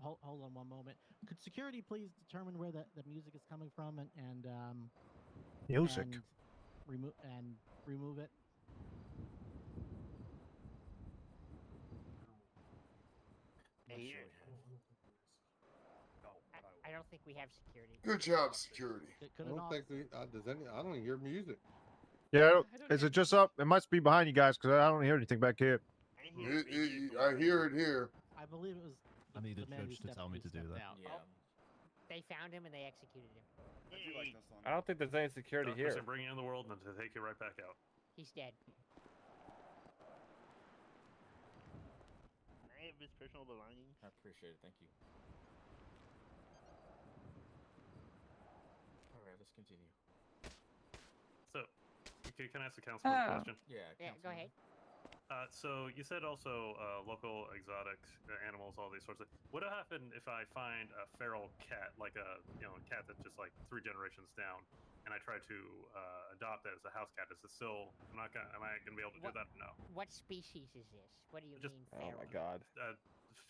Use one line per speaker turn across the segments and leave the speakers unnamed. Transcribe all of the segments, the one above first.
hold, hold on one moment. Could security please determine where the, the music is coming from and, and um
Music.
and remove and remove it?
Hey,
Sure we Oh,
I, I don't think we have security.
Good job, security.
Could,
I
could it
don't
all,
think we, uh, does any. I don't hear music.
Yeah, I don't-
I don't
is
hear
it just up? It must be behind you guys because I don't hear anything back here.
I didn't hear
It-
music
it-
before.
I hear it here.
I believe it was
I need the
man who
church to
stepped-
tell me
who
to do
stepped
that.
out.
Yeah.
They found him and they executed him.
I do like this song.
I don't think there's any security
Darkness
here.
and bring it in the world and to take it right back out.
He's dead.
I have his personal belongings.
I appreciate it. Thank you.
All right, let's continue.
So, can, can I ask the council a
Oh.
question?
Yeah.
Yeah, go ahead.
Uh, so you said also uh, local exotic uh, animals, all these sorts of. What would happen if I find a feral cat, like a you know a cat that's just like three generations down, and I try to uh, adopt it as a house cat? Is it still? I'm not gonna. Am I gonna be able to
What-
do that? No.
What species is this? What do you
Just-
mean
Oh
feral?
my god.
Uh,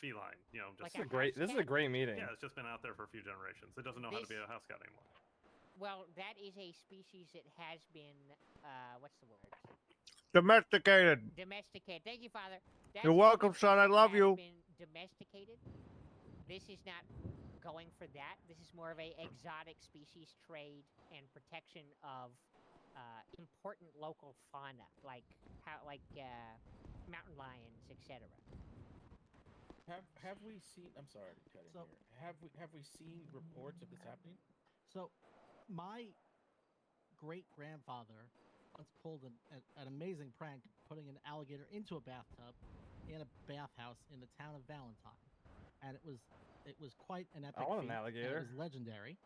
feline. You know,
This is a
Like
just
house
great. This is a
cat?
great meeting.
yeah. It's just been out there for a few generations. It doesn't know how to be
This-
a house cat anymore.
Well, that is a species that has been, uh, what's the word?
Domesticated.
Domesticated. Thank you, Father. That's
You're
a
welcome,
species
son. I
that
love
has
you.
Been domesticated. This is not going for that. This is more of a exotic species trade and protection of uh, important local fauna, like how, like uh, mountain lions, etc.
Have Have we seen? I'm sorry to cut in
So-
here. Have we Have we seen reports of this happening?
So, my great grandfather once pulled an, an, an amazing prank putting an alligator into a bathtub in a bathhouse in the town of Valentine, and it was it was quite an epic.
want an
feat, and
alligator.
It was legendary.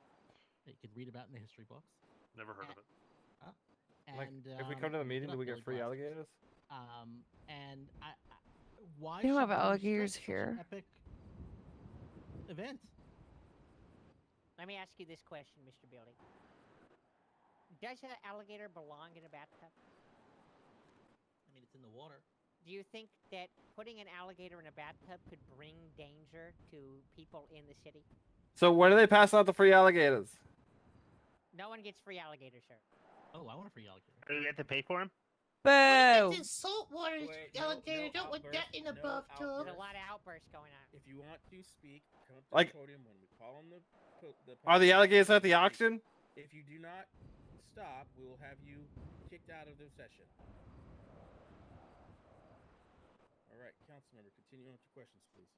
That you could read about in the history books.
Never heard
Uh,
of it.
And
Like, if we
um,
come to the
look
meeting, do
it up
we
really
get free
fast.
alligators?
Um, and I, I why
They don't
should
have
we restrict
alligators
such an
here.
Epic event.
Let me ask you this question, Mr. Building. Does an alligator belong in a bathtub?
I mean, it's in the water.
Do you think that putting an alligator in a bathtub could bring danger to people in the city?
So where do they pass out the free alligators?
No one gets free alligator, sir.
Oh, I want a free alligator.
Do we have to pay for him?
Boo!
Water alligator. don't want that in a buff tub.
There's a lot of outbursts going on.
If you want to speak, come up to
Like-
the podium when we call on the, po- the
Are the
public
alligators at the
speak.
auction?
If you do not stop, we will have you kicked out of the session. All right, council member, continue on with your questions, please.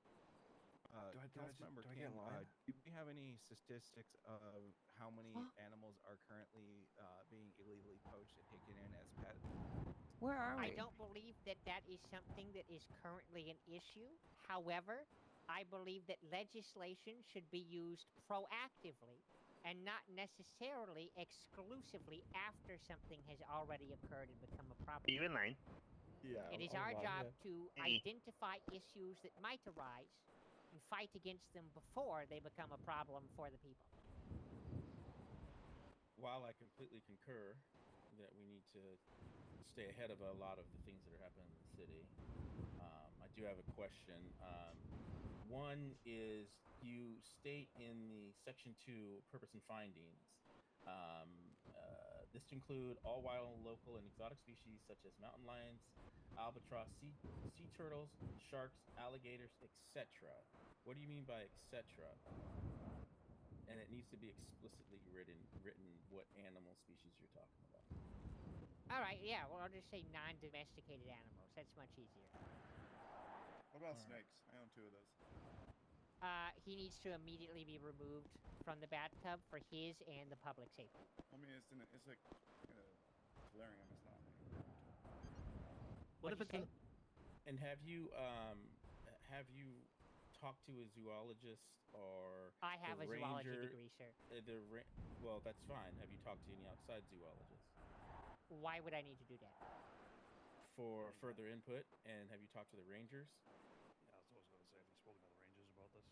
Uh,
Do I- do I just-
Councilmember
do I
King,
get in
uh,
line?
do we have any statistics of how many animals are currently uh, being illegally poached and taken in as pets?
Where are we?
I don't believe that that is something that is currently an issue. However, I believe that legislation should be used proactively and not necessarily exclusively after something has already occurred and become a problem.
Are you in line?
Yeah. oh
It is our job to
Hey.
identify issues that might arise and fight against them before they become a problem for the people.
While I completely concur that we need to stay ahead of a lot of the things that are happening in the city, um, I do have a question. Um, one is you state in the section two purpose and findings. Um, uh, this to include all wild, local, and exotic species such as mountain lions, albatross, sea, sea turtles, sharks, alligators, etc. What do you mean by etc.? and it needs to be explicitly written written what animal species you're talking about.
All right, yeah, well, I'll just say non domesticated animals. That's much easier.
What about
Alright.
snakes? I own two of those.
Uh, he needs to immediately be removed from the bathtub for his and the public safety.
I mean, it's in a, it's like uh, delirium. It's not.
What
What'd
if it's
you
an,
And have you um h- have you talked to a zoologist or
I have a zoology
ranger-
degree, sir.
uh, the ra- well that's fine. Have you talked to any outside zoologists
Why would I need to do that?
for further input? And have you talked to the rangers?
Yeah, I was always going to say. I've spoken to the rangers about this.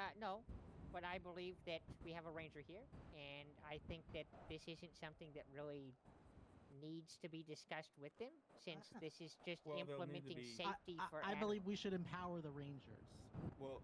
Uh, no, but I believe that we have a ranger here, and I think that this isn't something that really needs to be discussed with them, since
Uh,
this is just
Ah. Well, they'll need to
implementing
be-
I,
safety
I-
for
I believe we
animals.
should empower the rangers.
Well,